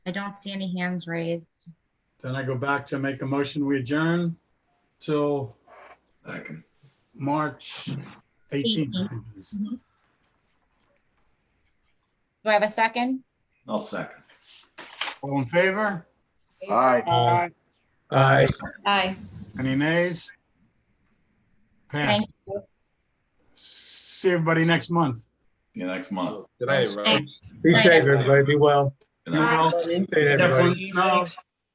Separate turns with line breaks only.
I don't see any hands raised.
Then I go back to make a motion, we adjourn till
Second.
March 18th. I think it is.
Do I have a second?
I'll second.
All in favor?
Aye.
Aye.
Aye.
Aye.
Any nays? Pass.
Thank you.
See everybody next month.
See you next month.
Good night, everybody. Be safe, everybody. Be well.
Good
You
night.
will.
Good night, everybody.
Definitely, no,